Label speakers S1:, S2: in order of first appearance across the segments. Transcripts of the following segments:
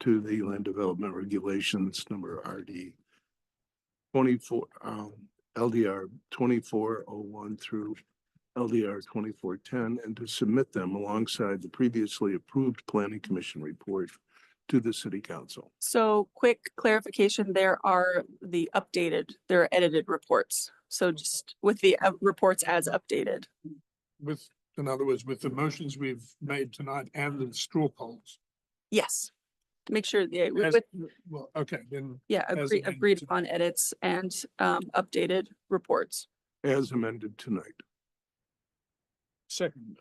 S1: to the land development regulations, number RD twenty-four, um, LDR twenty-four oh one through LDR twenty-four ten, and to submit them alongside the previously approved planning commission report to the city council.
S2: So quick clarification, there are the updated, there are edited reports. So
S3: Mm-hmm.
S2: just with the uh, reports as updated.
S4: with, in other words, with the motions we've made tonight and the straw polls.
S2: Yes. To Make sure the,
S4: as-
S2: with,
S4: Well, okay, then
S2: yeah,
S4: as
S2: agree-
S4: amended
S2: agreed
S4: to-
S2: upon edits and um updated reports.
S1: As amended tonight.
S4: second,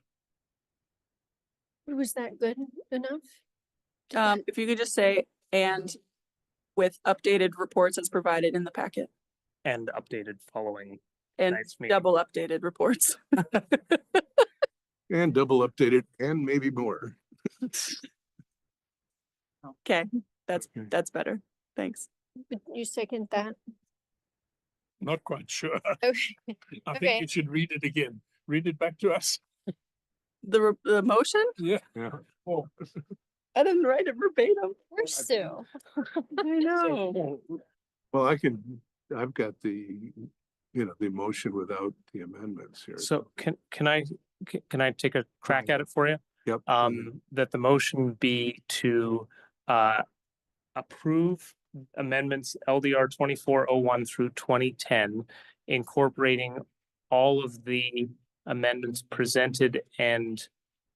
S5: Was that good enough? Did that-
S2: Um, if you could just say, and with updated reports as provided in the packet
S3: and updated following
S2: and
S3: tonight's meeting. Mm-hmm.
S2: double updated reports.
S1: And double updated and maybe more.
S2: Okay, that's,
S1: Okay.
S2: that's better. Thanks.
S5: Would you second that?
S4: not quite sure.
S5: Okay,
S4: I
S5: Okay.
S4: think you should read it again. Read it back to us.
S2: The, re- the motion?
S4: Yeah.
S1: Yeah.
S4: Oh,
S2: I didn't write it verbatim.
S5: we're Sue.
S2: I know.
S1: Well, I can, I've got the, you know, the motion without the amendments here.
S3: So can, can I, ca- can I take a crack at it for you?
S1: Yep. Mm-hmm.
S3: Um, that the motion be to, uh, approve amendments LDR twenty-four oh one through twenty-ten, incorporating all of the amendments presented and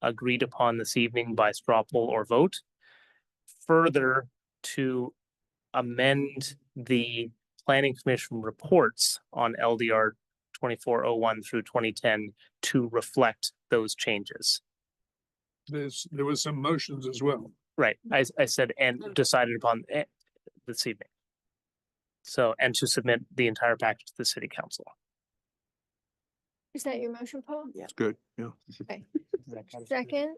S3: agreed upon this evening by straw poll or vote. Further, to amend the planning commission reports on LDR twenty-four oh one through twenty-ten to reflect those changes.
S4: There's, there was some motions as well.
S3: Right, I, s- I said and decided upon eh, this evening. So, and to submit the entire package to the city council.
S5: Is that your motion, Paul?
S2: Yeah.
S1: It's good, yeah.
S5: Second?
S4: Second.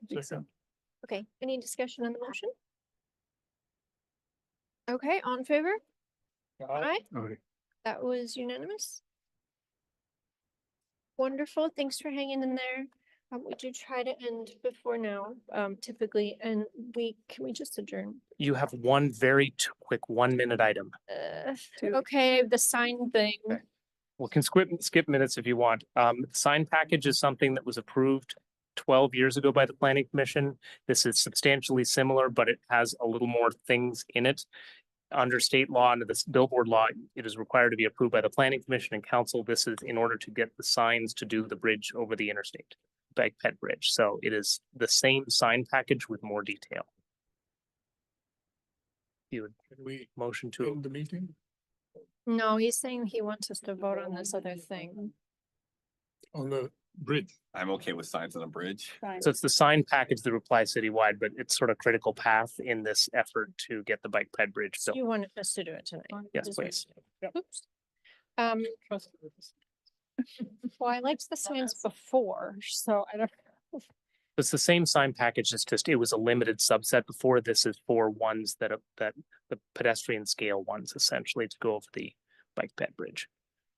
S5: Okay, any discussion on the motion? Okay, on favor? Aye.
S1: All right.
S5: That was unanimous. Wonderful. Thanks for hanging in there. Um, we do try to end before now, um, typically, and we, can we just adjourn?
S3: You have one very t- quick one-minute item.
S5: Uh,
S2: Two.
S5: okay, the sign thing.
S3: Okay. We can skip, skip minutes if you want. Um, sign package is something that was approved twelve years ago by the planning commission. This is substantially similar, but it has a little more things in it. Under state law, under this billboard law, it is required to be approved by the planning commission and council. This is in order to get the signs to do the bridge over the interstate. Bag Pet Bridge. So it is the same sign package with more detail. You would
S4: Can we
S3: motion to
S4: end the meeting?
S5: No, he's saying he wants us to vote on this other thing.
S4: on the bridge.
S6: I'm okay with signs on a bridge.
S3: So it's the sign package that applies citywide, but it's sort of critical path in this effort to get the bike ped bridge.
S5: So
S3: built.
S5: You wanted us to do it tonight.
S3: Yes,
S5: is what
S3: please.
S5: you- Oops. Um, well, I liked the signs before, so I don't.
S3: It's the same sign package. It's just, it was a limited subset before. This is for ones that, are- that the pedestrian scale ones essentially to go over the bike ped bridge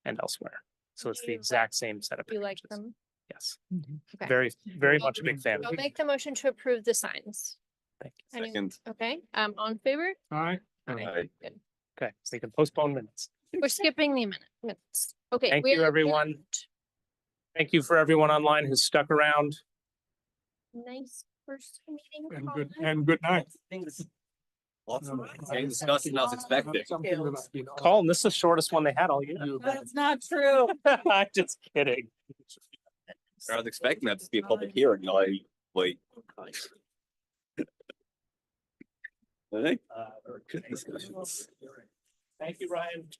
S3: and elsewhere. So it's the
S5: You-
S3: exact same set of
S5: You like
S3: packages.
S5: them?
S3: Yes,
S5: Okay.
S3: very, very
S4: Well,
S3: much a big fan. of
S5: I'll
S3: it.
S5: make the motion to approve the signs.
S3: Thank you.
S5: Any-
S6: Second.
S5: Okay, um, on favor?
S4: Aye.
S6: Aye.
S3: Okay, so you can postpone minutes.
S5: We're skipping the amendment- minutes. Okay.
S3: Thank
S5: we
S3: you,
S5: are
S3: everyone.
S5: adjourned.
S3: Thank you for everyone online who's stuck around.
S5: Nice first meeting.
S4: And good,
S5: Paula.
S4: and good night.
S6: Lots of exciting discussion as expected.
S4: Something that I've been asked
S3: Colin, this is the shortest one they had all year.
S4: you about.
S7: That's not true.
S3: I'm just kidding.
S6: I was expecting that to be a public hearing, I, wait. All right.
S3: Uh,
S6: Good discussions.
S3: Thank you, Ryan.